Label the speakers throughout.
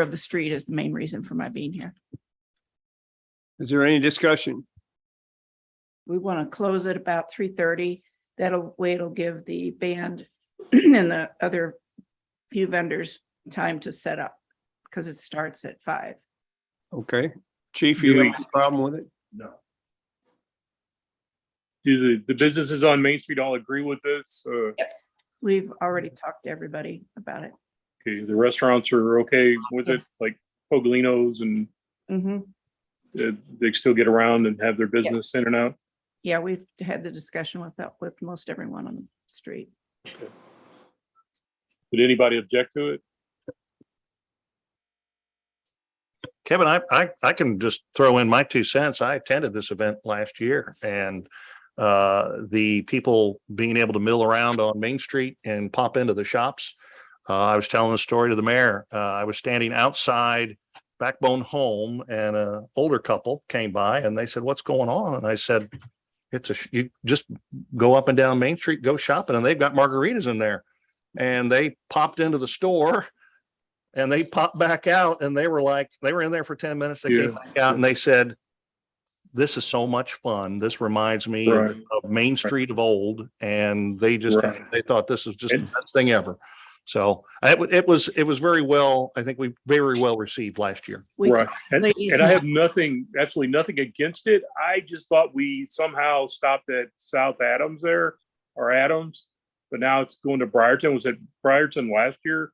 Speaker 1: of the street is the main reason for my being here.
Speaker 2: Is there any discussion?
Speaker 1: We want to close at about three thirty. That'll, way it'll give the band and the other few vendors time to set up because it starts at five.
Speaker 2: Okay, chief,
Speaker 3: Do
Speaker 2: you
Speaker 3: we-
Speaker 2: have a problem with it?
Speaker 3: No. Do the, the businesses on Main Street all agree with this? Uh,
Speaker 1: Yes. We've already talked to everybody about it.
Speaker 3: okay, the restaurants are okay with it, like Pogolinos and
Speaker 1: Mhm.
Speaker 3: uh, they still get around and have their business in and out?
Speaker 1: Yeah, we've had the discussion with that, with most everyone on the street.
Speaker 3: Did anybody object to it?
Speaker 4: Kevin, I, I, I can just throw in my two cents. I attended this event last year and uh, the people being able to mill around on Main Street and pop into the shops. Uh, I was telling the story to the mayor. Uh, I was standing outside Backbone Home and a older couple came by and they said, what's going on? And I said, it's a, sh- you just go up and down Main Street, go shopping and they've got margaritas in there. And they popped into the store and they popped back out and they were like, they were in there for ten minutes. They came
Speaker 3: Yeah.
Speaker 4: back out and they said, this is so much fun. This reminds me of
Speaker 3: Right.
Speaker 4: of Main Street of old, and they just,
Speaker 3: Right.
Speaker 4: they thought this was just the
Speaker 3: And-
Speaker 4: best thing ever. So it, wa- it was, it was very well, I think we very well received last year.
Speaker 1: We
Speaker 3: Right. And
Speaker 1: ladies
Speaker 3: and I
Speaker 1: and-
Speaker 3: have nothing, absolutely nothing against it. I just thought we somehow stopped at South Adams there or Adams. But now it's going to Briarton. Was it Briarton last year?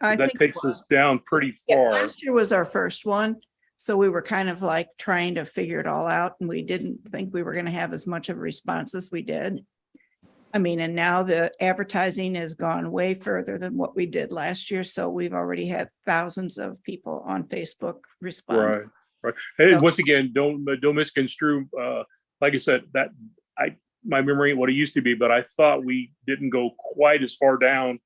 Speaker 1: I
Speaker 3: That
Speaker 1: think-
Speaker 3: takes us down pretty
Speaker 1: Yeah,
Speaker 3: far.
Speaker 1: last year was our first one, so we were kind of like trying to figure it all out and we didn't think we were gonna have as much of a response as we did. I mean, and now the advertising has gone way further than what we did last year, so we've already had thousands of people on Facebook respond.
Speaker 3: Right, right. Hey,
Speaker 1: So-
Speaker 3: once again, don't, don't misconstrue, uh, like I said, that, I, my memory, ain't what it used to be, but I thought we didn't go quite as far down.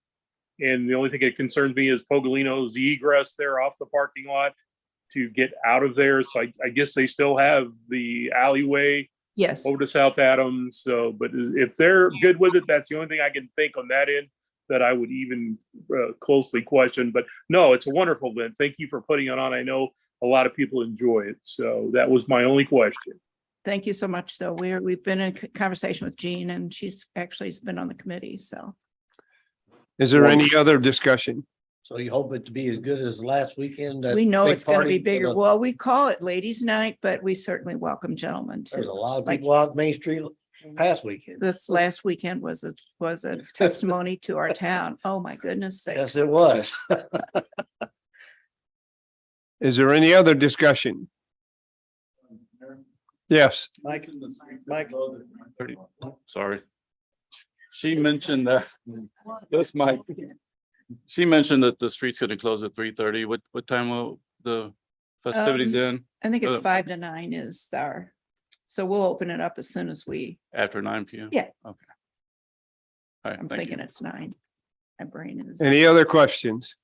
Speaker 3: And the only thing that concerns me is Pogolino's egress there off the parking lot to get out of there. So I, I guess they still have the alleyway
Speaker 1: Yes,
Speaker 5: Oh.
Speaker 3: over to South Adams. So, but if they're good with it, that's the only thing I can think on that end that I would even uh, closely question. But no, it's a wonderful event. Thank you for putting it on. I know a lot of people enjoy it. So that was my only question.
Speaker 1: thank you so much, though. We're, we've been in c- conversation with Jean and she's actually has been on the committee, so.
Speaker 2: Is there any other discussion?
Speaker 5: So you hope it to be as good as last weekend? that
Speaker 1: We know
Speaker 5: big
Speaker 1: it's gonna be
Speaker 5: party for
Speaker 1: bigger.
Speaker 5: the-
Speaker 1: Well, we call it ladies' night, but we certainly welcome gentlemen
Speaker 5: There's
Speaker 1: too.
Speaker 5: a lot of
Speaker 1: like-
Speaker 5: people out Main Street past weekend.
Speaker 1: this last weekend was, a was a testimony to our town. Oh, my goodness
Speaker 5: Yes,
Speaker 1: sakes.
Speaker 5: it was.
Speaker 2: Is there any other discussion? Yes,
Speaker 5: Mike, Mike.
Speaker 6: sorry. She mentioned that, that's my, she mentioned that the street's gonna close at three thirty. What, what time will the festivities
Speaker 1: Um,
Speaker 6: end?
Speaker 1: I think it's
Speaker 6: Uh,
Speaker 1: five to nine is our, so we'll open it up as soon as we,
Speaker 6: After nine P M?
Speaker 1: Yeah.
Speaker 6: Okay. All right,
Speaker 1: I'm
Speaker 6: thank you.
Speaker 1: thinking it's nine. My brain is.
Speaker 2: any other questions?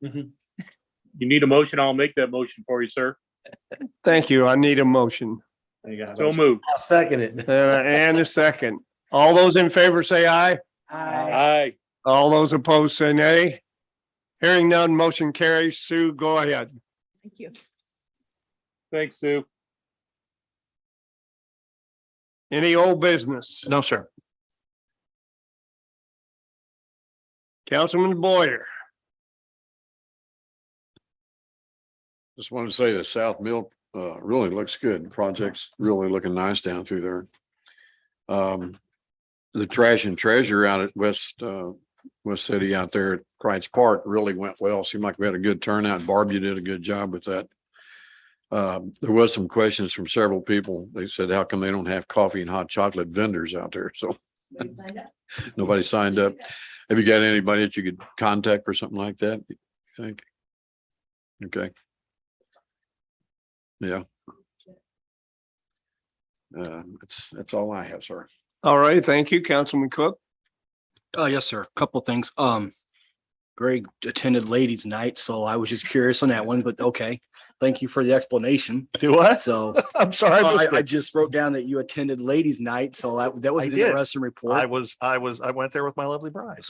Speaker 3: You need a motion? I'll make that motion for you, sir.
Speaker 2: Thank you. I need a motion
Speaker 3: So moved.
Speaker 5: I'll second it.
Speaker 2: uh, and a second. All those in favor say aye.
Speaker 3: Aye.
Speaker 2: All those opposed say nay. Hearing none, motion carries. Sue, go ahead.
Speaker 1: Thank you.
Speaker 3: Thanks, Sue.
Speaker 2: Any old business?
Speaker 4: No, sir.
Speaker 2: Councilman Boyer,
Speaker 7: Just wanted to say that South Mill uh really looks good. Project's really looking nice down through there. Um, the trash and treasure out at West uh West City out there at Kreitz Park really went well. Seemed like we had a good turnout. Barb, you did a good job with that. Um, there was some questions from several people. They said, how come they don't have coffee and hot chocolate vendors out there? So nobody signed up. Have you got anybody that you could contact for something like that, you think? Okay. Yeah. Uh, that's, that's all I have, sir.
Speaker 2: all right, thank you, Councilman Cook.
Speaker 8: Oh, Uh, yes, sir. Couple things. Um, Greg attended ladies night, so I was just curious on that one, but okay. Thank you for the explanation.
Speaker 4: Do what?
Speaker 8: So uh,
Speaker 4: I'm sorry. I
Speaker 8: Oh, I,
Speaker 4: missed
Speaker 8: I
Speaker 4: it.
Speaker 8: just wrote down that you attended ladies night, so that, that was
Speaker 4: I
Speaker 8: an
Speaker 4: did.
Speaker 8: interesting report.
Speaker 4: I was, I was, I went there with my lovely bride.